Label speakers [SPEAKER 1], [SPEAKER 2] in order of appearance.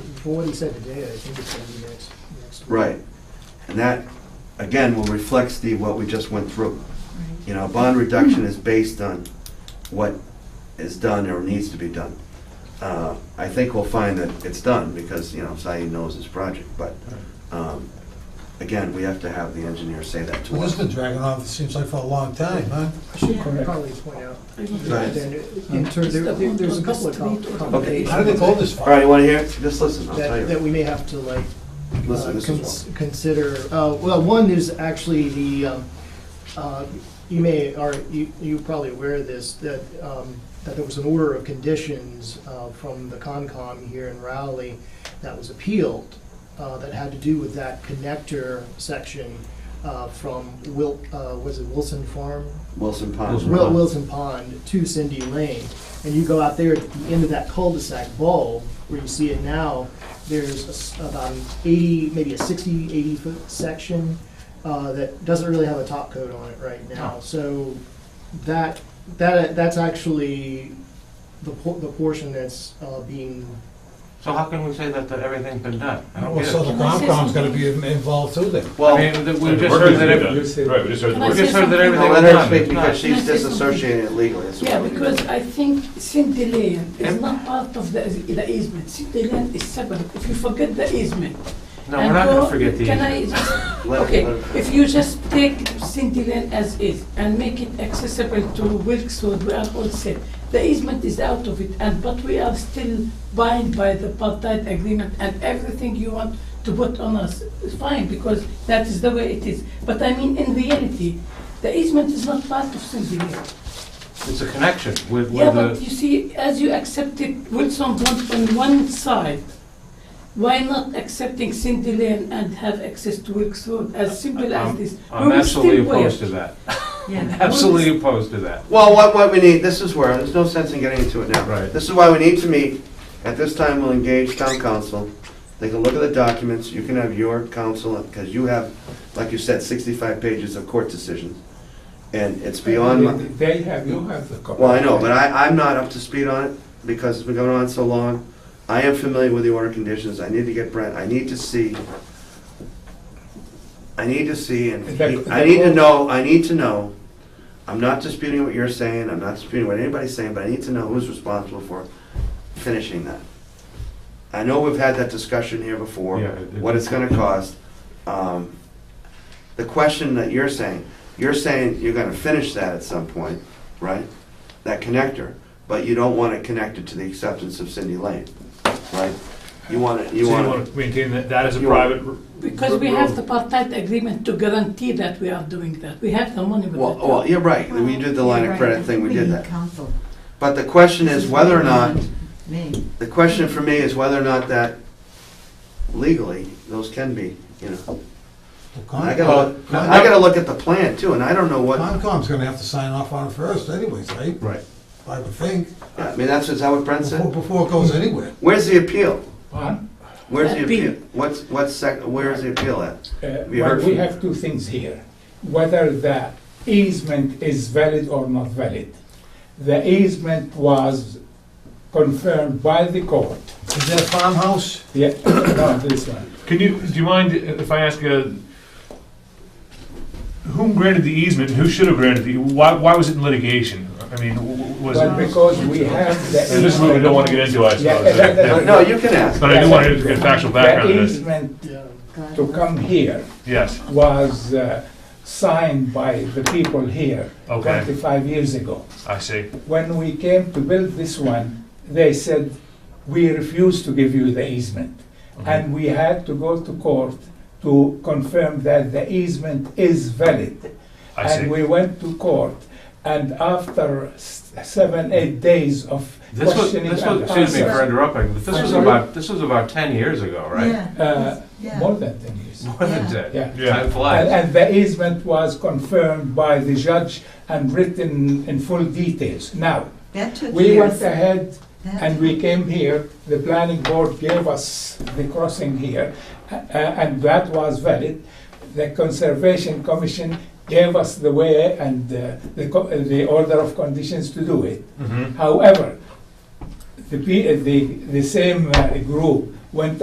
[SPEAKER 1] for what he said today, I think it's gonna be next, next week.
[SPEAKER 2] Right. And that, again, will reflect, Steve, what we just went through. You know, bond reduction is based on what is done or needs to be done. Uh, I think we'll find that it's done because, you know, Saeed knows his project, but, um, again, we have to have the engineer say that to
[SPEAKER 3] Well, this
[SPEAKER 2] us.
[SPEAKER 3] has been dragging on, it seems like, for a long time, huh?
[SPEAKER 1] I should
[SPEAKER 4] Yeah.
[SPEAKER 1] probably point out,
[SPEAKER 2] Right.
[SPEAKER 1] then, in terms, there- there- there's a couple of com-
[SPEAKER 2] Okay.
[SPEAKER 3] How did they go
[SPEAKER 1] complications
[SPEAKER 3] this
[SPEAKER 2] All
[SPEAKER 3] far?
[SPEAKER 2] right, you wanna hear? it? Just listen, I'll tell
[SPEAKER 1] that, that
[SPEAKER 2] you.
[SPEAKER 1] we may have to like uh,
[SPEAKER 2] Listen, this
[SPEAKER 1] cons-
[SPEAKER 2] is one.
[SPEAKER 1] consider, uh, well, one is actually the, um, uh, you may, or you, you're probably aware of this, that, um, that there was an order of conditions uh, from the Concom here in Rowley that was appealed, uh, that had to do with that connector section uh, from Wil, uh, was it Wilson Farm?
[SPEAKER 2] Wilson Pond.
[SPEAKER 5] Wilson.
[SPEAKER 1] Wil-
[SPEAKER 5] Pond.
[SPEAKER 1] Wilson Pond to Cindy Lane, and you go out there at the end of that cul-de-sac bulb, where you see it now, there's a s- about an eighty, maybe a 60, 80 foot section, uh, that doesn't really have a top coat on it right now, so that, that, that's actually the por- the portion that's, uh, being,
[SPEAKER 5] So how can we say that, that everything's been done? I don't
[SPEAKER 3] Well,
[SPEAKER 5] get
[SPEAKER 3] so
[SPEAKER 5] it.
[SPEAKER 3] the Concom's gonna be involved too then.
[SPEAKER 5] I
[SPEAKER 2] Well,
[SPEAKER 5] mean, th- we just heard that, ev- we
[SPEAKER 6] Right, we just heard the
[SPEAKER 4] Can I
[SPEAKER 6] word.
[SPEAKER 4] say
[SPEAKER 5] just heard
[SPEAKER 4] something?
[SPEAKER 5] that everything
[SPEAKER 2] I'll
[SPEAKER 5] was
[SPEAKER 2] let
[SPEAKER 5] done.
[SPEAKER 2] her speak because
[SPEAKER 5] It's
[SPEAKER 2] she's
[SPEAKER 4] Can I say something?
[SPEAKER 2] disassociating it legally. That's
[SPEAKER 4] Yeah,
[SPEAKER 2] why we did
[SPEAKER 4] because
[SPEAKER 2] it.
[SPEAKER 4] I think Cindy Lane
[SPEAKER 5] Yeah.
[SPEAKER 4] is not part of the the easement. Cindy Lane is separate. If you forget the easement.
[SPEAKER 5] not- No, we're
[SPEAKER 4] and
[SPEAKER 5] not
[SPEAKER 4] go-
[SPEAKER 5] gonna forget the
[SPEAKER 4] Can I
[SPEAKER 5] easement.
[SPEAKER 4] just,
[SPEAKER 2] Let-
[SPEAKER 4] okay,
[SPEAKER 2] let her-
[SPEAKER 4] if you just take Cindy Lane as is and make it accessible to Wilkes Road, we are all set. The easement is out of it, and, but we are still bound by the apartheid agreement and everything you want to put on us is fine, because that is the way it is. But I mean, in reality, the easement is not part of Cindy Lane.
[SPEAKER 5] It's a connection with,
[SPEAKER 4] Yeah,
[SPEAKER 5] with
[SPEAKER 4] but
[SPEAKER 5] the,
[SPEAKER 4] you see, as you accepted Wilson Pond on one side, why not accepting Cindy Lane and have access to Wilkes Road as simple as
[SPEAKER 5] I'm
[SPEAKER 4] this?
[SPEAKER 5] I'm
[SPEAKER 4] We will still
[SPEAKER 5] absolutely
[SPEAKER 4] wear-
[SPEAKER 5] opposed to that. Absolutely opposed to that.
[SPEAKER 2] Well, what, what we need, this is where, there's no sense in getting into it now.
[SPEAKER 5] Right.
[SPEAKER 2] This is why we need to meet. At this time, we'll engage town council. They can look at the documents. You can have your counsel, because you have, like you said, sixty-five pages of court decisions. And it's beyond, my-
[SPEAKER 6] They have, you have the. copy.
[SPEAKER 2] well, I know, but I, I'm not up to speed on it because it's been going on so long. I am familiar with the order conditions. I need to get Brent, I need to see, I need to see and,
[SPEAKER 6] Is that- is
[SPEAKER 2] he- I
[SPEAKER 6] that
[SPEAKER 2] need to
[SPEAKER 6] all?
[SPEAKER 2] know, I need to know. I'm not disputing what you're saying, I'm not disputing what anybody's saying, but I need to know who's responsible for finishing that. I know we've had that discussion here before,
[SPEAKER 5] Yeah, it-
[SPEAKER 2] what it's gonna cost. Um, The question that you're saying, you're saying you're gonna finish that at some point, right? That connector, but you don't want it connected to the acceptance of Cindy Lane, right? You want it,
[SPEAKER 6] So
[SPEAKER 2] you
[SPEAKER 6] you
[SPEAKER 2] want
[SPEAKER 6] want
[SPEAKER 2] it,
[SPEAKER 6] to maintain that, that is a
[SPEAKER 2] You want-
[SPEAKER 6] private. r-
[SPEAKER 4] Because
[SPEAKER 6] r-
[SPEAKER 4] we have the
[SPEAKER 6] road.
[SPEAKER 4] apartheid agreement to guarantee that we are doing that. We have the money with
[SPEAKER 2] well, well,
[SPEAKER 4] that.
[SPEAKER 2] you're right, we did the line of credit thing, we did that.
[SPEAKER 7] Council.
[SPEAKER 2] But the question is whether or not,
[SPEAKER 7] Me.
[SPEAKER 2] the question for me is whether or not that legally, those can be, you know.
[SPEAKER 3] The
[SPEAKER 2] I
[SPEAKER 3] Concom-
[SPEAKER 2] gotta, look- I gotta look at the plan too, and I don't know what,
[SPEAKER 3] Concom's gonna have to sign off on it first anyways, right?
[SPEAKER 5] Right.
[SPEAKER 3] I would think,
[SPEAKER 2] I mean, that's, is that what Brent
[SPEAKER 3] before,
[SPEAKER 2] said?
[SPEAKER 3] before it goes anywhere.
[SPEAKER 2] Where's the appeal?
[SPEAKER 8] Uh,
[SPEAKER 2] Where's the
[SPEAKER 4] Appeal.
[SPEAKER 2] appeal? What's, what's sec, where's the appeal at? We
[SPEAKER 8] well,
[SPEAKER 2] heard
[SPEAKER 8] we
[SPEAKER 2] from-
[SPEAKER 8] have two things here, whether the easement is valid or not valid. The easement was confirmed by the court.
[SPEAKER 3] Is that farmhouse?
[SPEAKER 8] Yeah, no, this one.
[SPEAKER 6] Can you, do you mind if I ask, uh, whom granted the easement, who should have granted the, why, why was it in litigation? I mean, w- w- was
[SPEAKER 8] But
[SPEAKER 6] it?
[SPEAKER 8] because we have the.
[SPEAKER 6] This is what we don't want to get into, I
[SPEAKER 8] Yeah,
[SPEAKER 6] suppose.
[SPEAKER 8] that- that-
[SPEAKER 2] No, you can ask.
[SPEAKER 6] But I do want to get factual background
[SPEAKER 8] The
[SPEAKER 6] on this,
[SPEAKER 8] easement
[SPEAKER 1] yeah.
[SPEAKER 8] to come here
[SPEAKER 6] yes,
[SPEAKER 8] was uh, signed by the people here
[SPEAKER 6] Okay.
[SPEAKER 8] twenty-five years ago.
[SPEAKER 6] I see,
[SPEAKER 8] when we came to build this one, they said, we refuse to give you the easement. And we had to go to court to confirm that the easement is valid.
[SPEAKER 6] I see.
[SPEAKER 8] And we went to court, and after s- seven, eight days of
[SPEAKER 5] This was,
[SPEAKER 8] questioning
[SPEAKER 5] this
[SPEAKER 8] and
[SPEAKER 5] was, excuse me for
[SPEAKER 8] answers.
[SPEAKER 5] interrupting, but this was about, this was about ten years ago, right?
[SPEAKER 8] Uh,
[SPEAKER 7] Yeah. Yeah.
[SPEAKER 8] More than ten years.
[SPEAKER 5] More than ten.
[SPEAKER 8] Yeah.
[SPEAKER 6] Yeah.
[SPEAKER 5] Time
[SPEAKER 8] And,
[SPEAKER 5] flies.
[SPEAKER 8] and the easement was confirmed by the judge and written in full details. Now,
[SPEAKER 7] That took
[SPEAKER 8] we went
[SPEAKER 7] years.
[SPEAKER 8] ahead
[SPEAKER 7] That-
[SPEAKER 8] And we came here, the planning board gave us the crossing here, a- a- and that was valid. The Conservation Commission gave us the way and uh, the co- uh, the order of conditions to do it.
[SPEAKER 5] Mm-hmm.
[SPEAKER 6] Mhm.
[SPEAKER 8] However, the pe- uh, the the same uh, group went